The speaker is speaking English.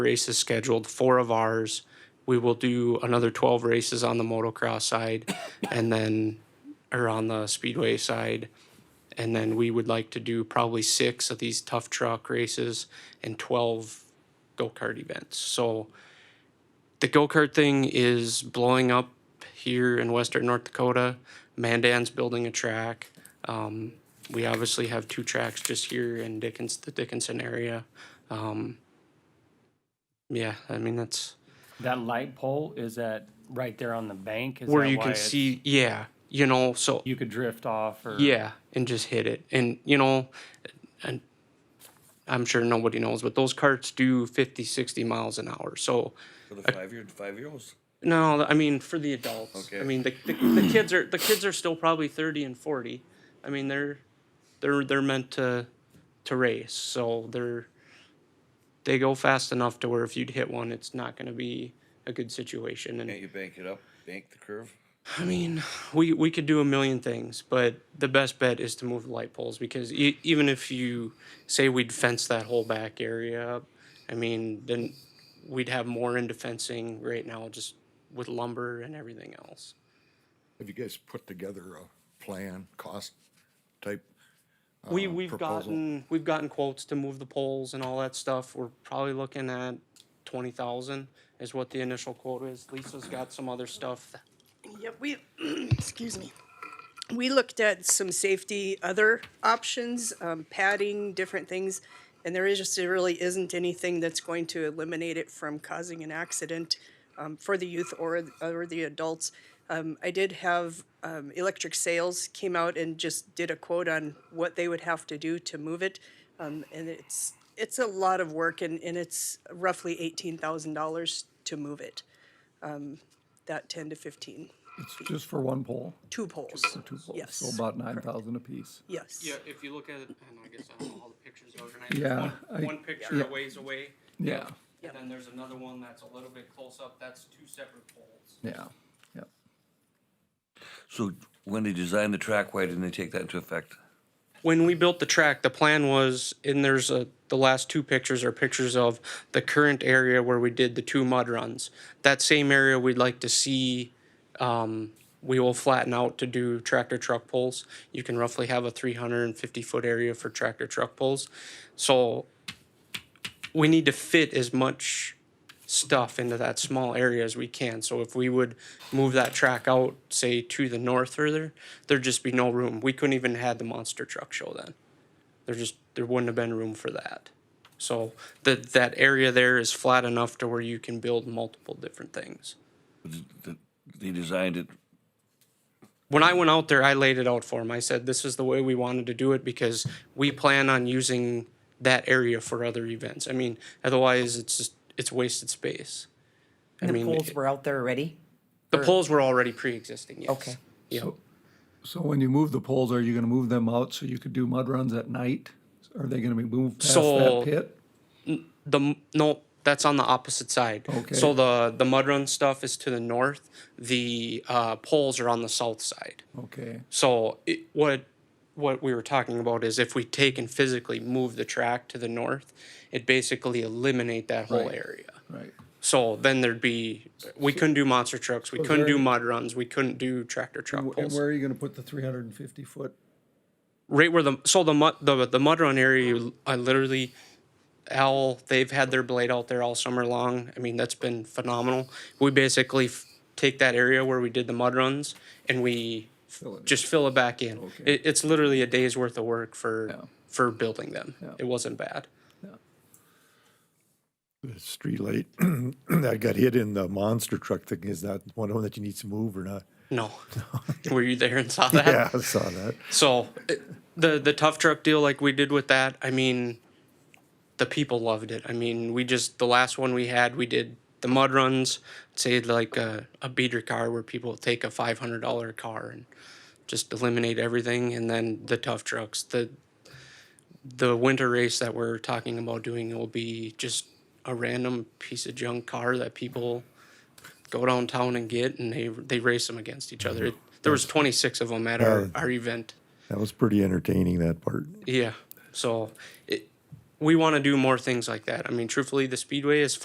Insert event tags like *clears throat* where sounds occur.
races scheduled, four of ours. We will do another 12 races on the motocross side and then, or on the speedway side. And then we would like to do probably six of these tough truck races and 12 go kart events. So the go kart thing is blowing up here in western North Dakota. Mandan's building a track. Um, we obviously have two tracks just here in Dickens, the Dickinson area. Um, yeah, I mean that's That light pole is at right there on the bank. Is where that you why can it's- see. Yeah, you know. So you could drift off or yeah, and just hit it, and you know, and I'm sure nobody knows, but those carts do 50, 60 miles an hour. So For the five year five year olds? No, I mean for the adults. I Okay. mean the, the the kids are the kids are still probably thirty and forty. I mean they're they're they're meant to to race, so they're they go fast enough to where if you'd hit one, it's not going to be a good situation. And Can't you bank it up? Bank the curve? I mean, we we could do a million things, but the best bet is to move the light poles because e- even if you say we'd fence that whole back area up, I mean, then we'd have more into fencing right now just with lumber and everything else. Have you guys put together a plan, cost type? we uh, we've proposal? gotten we've gotten quotes to move the poles and all that stuff. We're probably looking at twenty thousand is what the initial quote is. Lisa's got some other stuff. Yeah, we, *clears throat* excuse me. We looked at some safety, other options, um, padding, different things. And there is just, there really isn't anything that's going to eliminate it from causing an accident, um, for the youth or, or the adults. Um, I did have, um, Electric Sales came out and just did a quote on what they would have to do to move it. Um, and it's, it's a lot of work and, and it's roughly eighteen thousand dollars to move it. Um, that ten to fifteen. It's just for one pole, Two poles. two poles, Yes. so about nine thousand apiece. Yes. if you look at, and I guess I don't know all the pictures organized. Yeah, I- picture a ways away. Yeah, And then there's another one that's a little bit close up, that's two separate poles. yeah, yeah. So when they designed the track, why didn't they take that into effect? When we built the track, the plan was, and there's a, the last two pictures are pictures of the current area where we did the two mud runs. That same area we'd like to see, um, we will flatten out to do tractor truck poles. You can roughly have a three hundred and fifty foot area for tractor truck poles. So we need to fit as much stuff into that small area as we can. So if we would move that track out, say to the north further, there'd just be no room. We couldn't even had the monster truck show then. There just there wouldn't have been room for that. So that that area there is flat enough to where you can build multiple different things. Th- th- They designed it when I went out there, I laid it out for him. I said, this is the way we wanted to do it because we plan on using that area for other events. I mean, otherwise it's just, it's wasted space. I The mean, poles it- were out there already? the poles were already pre-existing, yes. Okay. Yeah. So when you move the poles, are you gonna move them out so you could do mud runs at night? Are they gonna be moved past So- that pit? the m- no that's on the opposite side Okay. so the the mud run stuff is to the north the uh, poles are on the south side Okay, so it, what what we were talking about is if we take and physically move the track to the north it basically eliminate that whole Right. area right. so then there'd be we couldn't do monster trucks we couldn't there do any- mud runs we couldn't do tractor truck And pulls where are you gonna put the three hundred and fifty foot? right where the so the mud the the mud run area you- I literally Al they've had their blade out there all summer long. I mean that's been phenomenal. We basically f- take that area where we did the mud runs and we f- Fill it just fill it back in. Okay. It, it's literally a day's worth of work for Yeah. for building them. Yeah. It wasn't bad. the streetlight *clears throat* that got hit in the monster truck thing, is that one one that you need to move or not? *laughs* No, were you there and saw that? *laughs* Yeah, I saw that. So it- the the tough truck deal like we did with that, I mean the people loved it. I mean, we just the last one we had, we did the mud runs, say like a, a beater car where people take a five hundred dollar car and just eliminate everything and then the tough trucks. The the winter race that we're talking about doing will be just a random piece of junk car that people go downtown and get and they they race them against each other. It, there was 26 of them at our, our event. That was pretty entertaining, that part. Yeah. So it, we want to do more things like that. I mean, truthfully, the speedway is